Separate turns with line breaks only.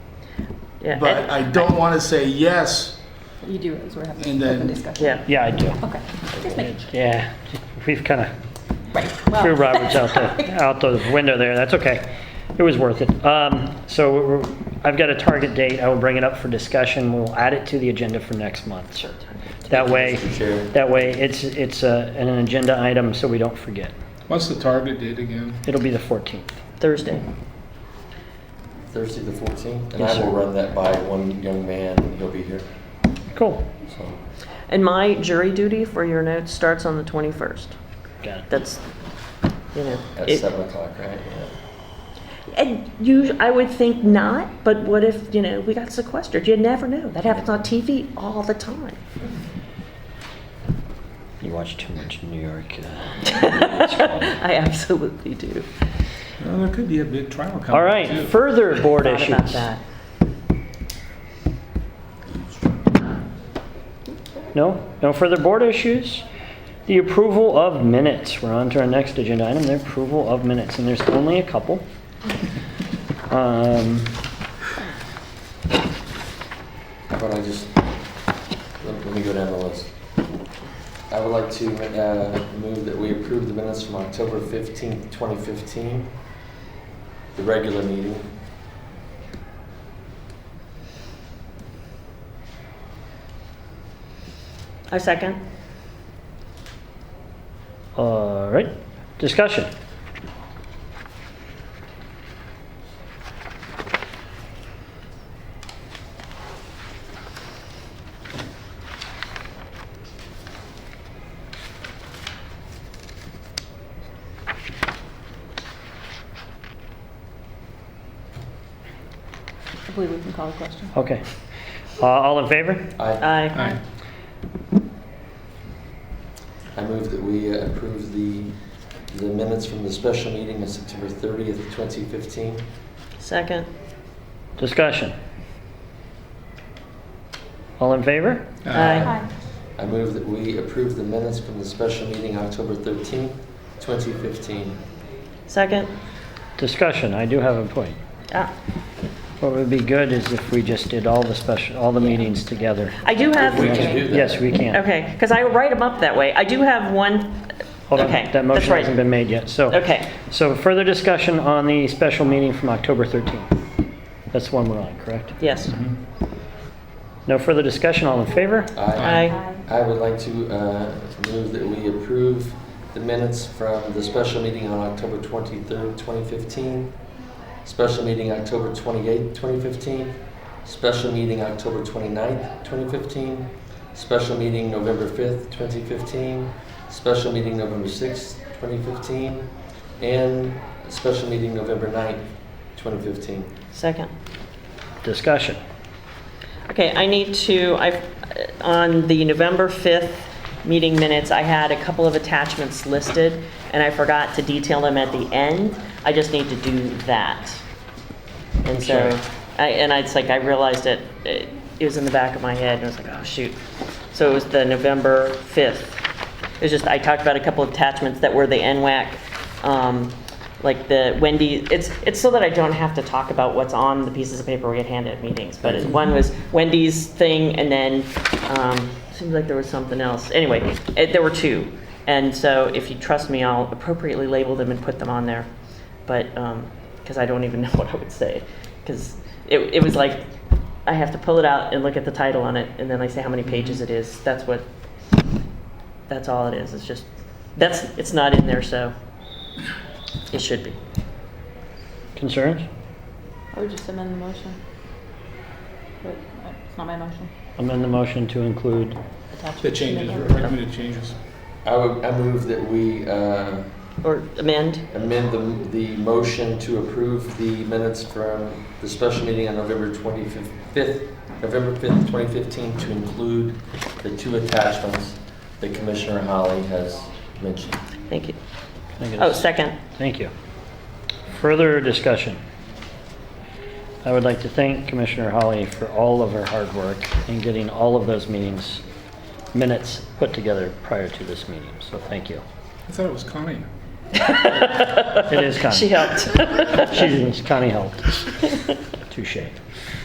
Yeah,
But
I-
I don't want to say yes,
You do, as we're having
And
an open
then-
discussion.
yeah,
Yeah, I do.
Okay, just making sure.
Yeah, we've kind of
Right,
Oh.
well.
threw Roberts out the, out the window there, that's okay. It was worth it. Um, So we're- I've got a target date, I will bring it up for discussion, we'll add it to the agenda for next month. sir. That way,
Chair.
that way, it's, it's uh, an agenda item, so we don't forget.
What's the target date again?
It'll be the 14th.
Thursday.
Thursday the 14th, and
Yes,
I will
sir.
run that by one young man, and he'll be here,
Cool,
so.
And my jury duty for your notes starts on the 21st.
got it.
That's, you know.
At
it-
7 o'clock, right? Yeah.
And you, I would think not, but what if, you know, we got sequestered? You never know. That happens on TV all the time.
You watch too much New York. uh,
I absolutely do.
Well, there could be a big trial coming.
All right,
too.
further board
Thought about
issues.
that.
No, no further board issues. The approval of minutes. We're on to our next agenda item, the approval of minutes, and there's only a couple. Um,
How about I just, let let me go down the list. I would like to uh, move that we approve the minutes from October 15th, 2015, the regular meeting.
I second.
All right, discussion.
I believe we can call a question.
Okay. Uh, All in favor?
I,
Aye.
Aye.
I move that we uh, approve the, the minutes from the special meeting of September 30th, 2015.
Second.
Discussion. All in favor?
Aye.
I move that we approve the minutes from the special meeting October 13th, 2015.
Second.
Discussion, I do have a point.
Ah,
What would be good is if we just did all the special, all the meetings together.
I do have.
We can do that.
Yes, we can.
Okay, because I write them up that way. I do have one.
Hold on,
okay,
that
that's
motion
right.
hasn't been made yet, so.
Okay.
So further discussion on the special meeting from October 13th. That's the one we're on, correct?
Yes.
No further discussion, all in favor?
Aye.
I would like to uh, move that we approve the minutes from the special meeting on October 23rd, 2015, special meeting October 28th, 2015, special meeting October 29th, 2015, special meeting November 5th, 2015, special meeting November 6th, 2015, and special meeting November 9th, 2015.
Second.
Discussion.
Okay, I need to, I, on the November 5th meeting minutes, I had a couple of attachments listed, and I forgot to detail them at the end. I just need to do that. And so,
Sure.
I, and I, it's like, I realized it, it it was in the back of my head, and I was like, oh, shoot. So it was the November 5th. It was just, I talked about a couple of attachments that were the NWAC, um, like the Wendy, it's, it's so that I don't have to talk about what's on the pieces of paper we get handed at meetings. But it- one was Wendy's thing, and then, um, seems like there was something else. Anyway, it, there were two. And so if you trust me, I'll appropriately label them and put them on there. But, um, cause I don't even know what I would say. Cause it, it was like, I have to pull it out and look at the title on it, and then I say how many pages it is. That's what that's all it is. It's just, that's, it's not in there, so it should be.
Concerns?
I would just amend the motion. But uh, it's not my motion.
Amend the motion to include,
Attachment.
Uh, The changes, recommended changes.
I would, I move that we uh,
Or amend?
amend the, the motion to approve the minutes from the special meeting on November 25th, November 5th, 2015, to include the two attachments that Commissioner Holly has mentioned.
Thank you.
can I get a
Oh, second.
Thank you. Further discussion. I would like to thank Commissioner Holly for all of her hard work in getting all of those meetings, minutes put together prior to this meeting, so thank you.
I thought it was Connie.
It is Connie.
She helped.
She's, Connie helped. Touche.